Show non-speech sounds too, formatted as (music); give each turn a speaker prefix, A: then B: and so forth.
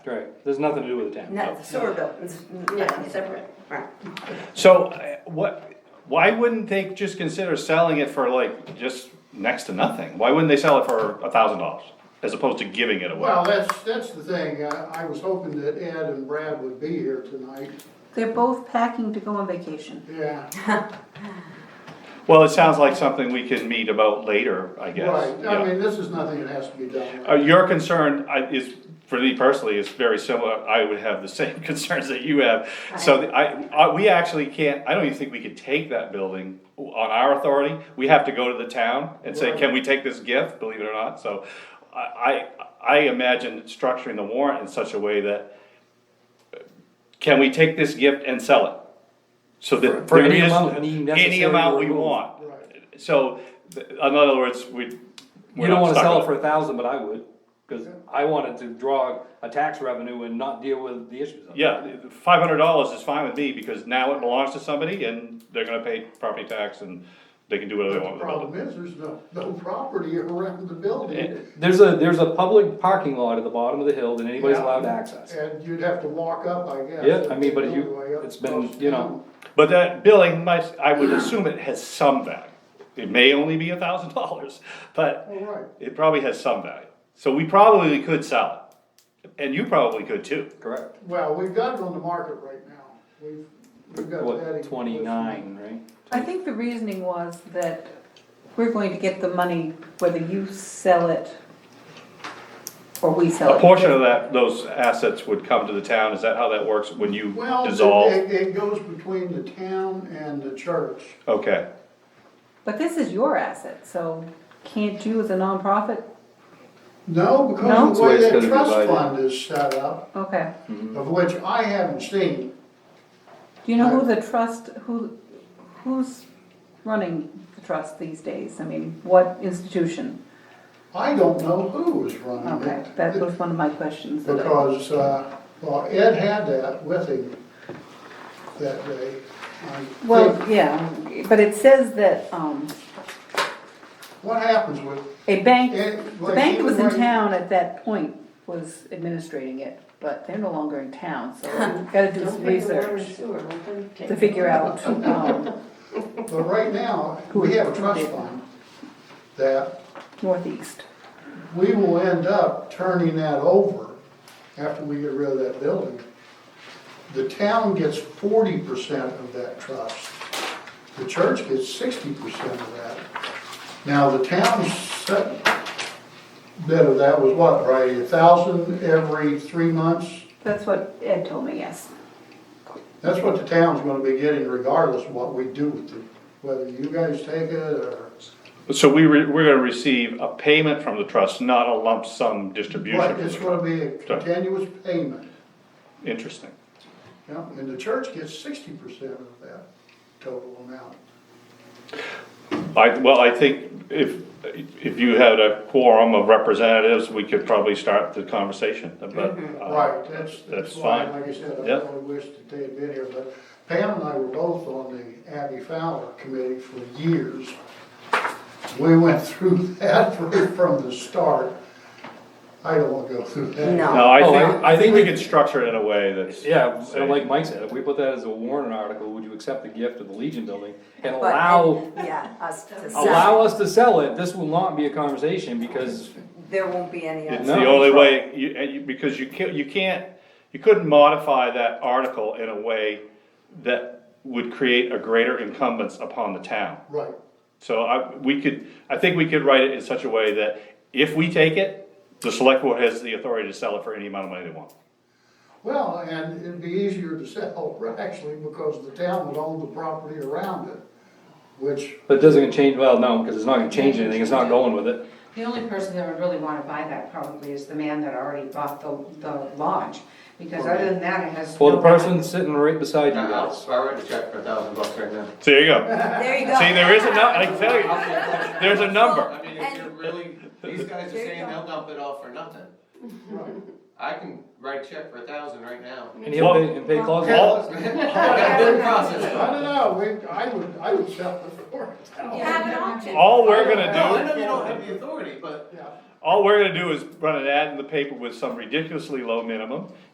A: Right, there's nothing to do with the town.
B: No, the sewer bill, it's nothing separate, right.
C: So uh, what, why wouldn't they just consider selling it for like just next to nothing? Why wouldn't they sell it for a thousand dollars as opposed to giving it away?
D: Well, that's, that's the thing, Uh, I, I was hoping that Ed and Brad would be here tonight,
E: They're both packing to go on vacation.
D: yeah.
C: Well, it sounds like something we can meet about later, I guess.
D: Right,
C: Yeah.
D: I mean, this is nothing that has to be done.
C: Uh, your concern I- is, for me personally, is very similar, I would have the same (laughs) concerns that you have. So the- I, I, we actually can't, I don't even think we could take that building on our authority. We have to go to the town and say, can we take this gift, believe it or not, so I, I, I imagine structuring the warrant in such a way that uh, can we take this gift and sell it? So that.
A: For any
C: there is-
A: amount we necessarily
C: Any amount we
A: remove.
C: want,
D: Right.
C: so, th- in other words, we.
A: You don't wanna sell it for a thousand, but I would, cause I wanted to draw a tax revenue and not deal with the issues of it.
C: Yeah, five hundred dollars is fine with me, because now it belongs to somebody, and they're gonna pay property tax, and they can do whatever they
D: The
C: want with the building.
D: problem is, there's no, no property around the building,
A: There's a, there's a public parking lot at the bottom of the hill that anybody's
D: Yeah.
A: allowed to access.
D: and you'd have to walk up, I guess.
A: Yeah, I mean, but
D: It's
A: you-
D: the only way up
A: it's been,
D: across
A: you know,
C: But that billing must, I would assume it has some value, it may only be a thousand dollars, but
D: town. Oh, right,
C: it probably has some value. So we probably could sell it, and you probably could too.
A: Correct.
D: well, we've got it on the market right now, we've, we've got that.
A: What,
D: in-
A: twenty-nine, right?
E: I think the reasoning was that we're going to get the money whether you sell it or we sell it.
C: A portion of that, those assets would come to the town, is that how that works, when you
D: Well,
C: dissolve?
D: it, it goes between the town and the church,
C: Okay,
E: But this is your asset, so can't you as a nonprofit?
D: no,
E: No?
D: because of
E: That's
D: the
E: the
D: way that
A: gonna be
D: trust
A: divided.
D: fund is set up,
E: Okay.
D: of which I haven't seen,
E: Do you know who the trust, who, who's running the trust these days? I mean, what institution?
D: I don't know who was running
E: Okay,
D: it.
E: that was one of my questions. that I-
D: Because, uh, well, Ed had that with him that day. I
E: Well,
D: think-
E: yeah, but it says that, um,
D: What happens with,
E: A bank,
D: And,
E: the
D: like,
E: bank that was in
D: even when-
E: town at that point, was administrating it, but they're no longer in town, (laughs) so we've gotta do some
B: Don't pay the water and
E: research
B: sewer, let them take
E: to
B: it.
E: figure out, um,
D: but right now,
E: Who
D: we
E: is-
D: have a
E: who
D: trust
E: did?
D: fund that
E: northeast.
D: we will end up turning that over after we get rid of that building. The town gets forty percent of that trust. The church gets sixty percent of that. Now, the town's set bit of that was what, right, a thousand every three months?
E: That's what Ed told me, yes.
D: That's what the town's gonna be getting regardless of what we do with it, whether you guys take it or.
C: so we, re- we're gonna receive a payment from the trust, not a lump sum distribution.
D: Right,
C: from
D: it's
C: the
D: gonna
C: trust.
D: be a continuous payment.
C: Interesting.
D: Yeah, and the church gets sixty percent of that total amount.
C: I, well, I think if, if you had a quorum of representatives, we could probably start the conversation, but. uh,
D: Right, that's,
C: That's
D: that's why,
C: fine.
D: like I said, I
C: Yep.
D: really wish that they had been here, but Pam and I were both on the Abby Fowler committee for years. We went through (laughs) that right from the start. I don't wanna go through that.
B: No.
C: No, I
A: Oh,
C: think,
A: I-
C: I think we could structure it in a way that's.
A: Yeah,
C: safe.
A: and like Mike said, if we put that as a warrant article, would you accept the gift of the Legion building and
B: But-
A: allow,
B: Yeah, us to sell,
A: allow us to sell it? This will not be a conversation because
B: there won't be any
C: It's
B: us.
A: No.
C: the only way, you, and you, because you can't, you can't, you couldn't modify that article in a way that would create a greater incumbents upon the town.
D: Right,
C: So I, we could, I think we could write it in such a way that if we take it, the select board has the authority to sell it for any amount of money they want.
D: well, and it'd be easier to sell, (laughs) actually, because the town would own the property around it, which,
A: But it doesn't change, well, no, because it's not gonna change anything, it's not going with it.
F: The only person that would really wanna buy that probably is the man that already bought the, the lodge, because other than that, it has.
A: Well, the
F: no value.
A: person sitting right beside you
G: I'll,
A: guys.
G: I'll write a check for a thousand bucks right now.
C: So there you go.
B: There you go.
C: See, there is a number, I can tell you, there's a number.
G: I mean, if you're really, these guys are
B: There you
G: saying
B: go.
G: they'll dump it all for nothing.
D: right.
G: I can write a check for a thousand right (laughs) now.
A: And he'll pay, and pay closet.
C: All,
G: Good process.
D: I don't know, we, I would, I would sell it for it.
B: Have an auction.
C: all we're gonna
G: No, I
C: do,
G: know you don't have the authority, but
D: Yeah.
C: all we're gonna do is run an ad in the paper with some ridiculously low minimum,